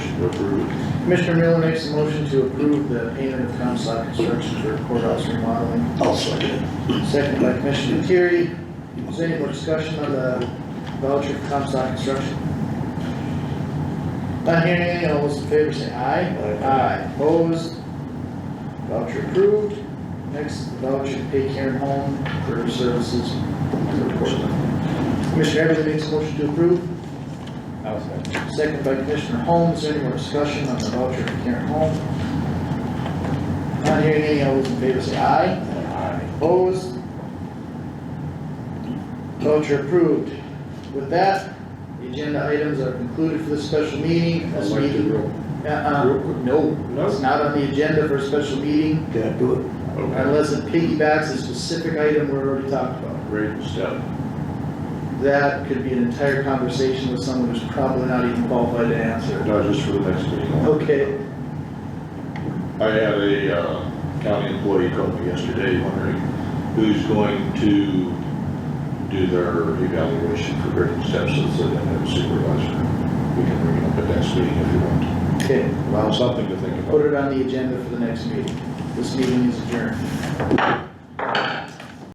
to approve. Commissioner Miller makes a motion to approve the payment of Comstock Construction for courthouse remodeling, I'll second. second by Commissioner Terry. Is there any more discussion on the voucher for Comstock Construction? Not hearing any, all those in favor say aye. Aye. Aye, opposed. Voucher approved. Next, voucher to pay Karen Holm for her services for courthouse. Commissioner Everly makes a motion to approve. I'll second. Second by Commissioner Holmes, any more discussion on the voucher for Karen Holm? Not hearing any, all those in favor say aye. Aye. Opposed? Voucher approved. With that, the agenda items are concluded for this special meeting. This Elected meeting, real- Uh, uh-uh, no, it's not on the agenda for a special meeting Can't do it. unless it piggybacks a specific item we already talked about. Great stuff. That could be an entire conversation with someone who's probably not even qualified to answer. No, just for the next meeting. Okay, I had a, uh, county employee call me yesterday wondering who's going to do their evaluation for grading steps so that they have a supervisor. We can bring it up at next meeting if you want. okay. Well, something to think about. Put it on the agenda for the next meeting. This meeting is adjourned.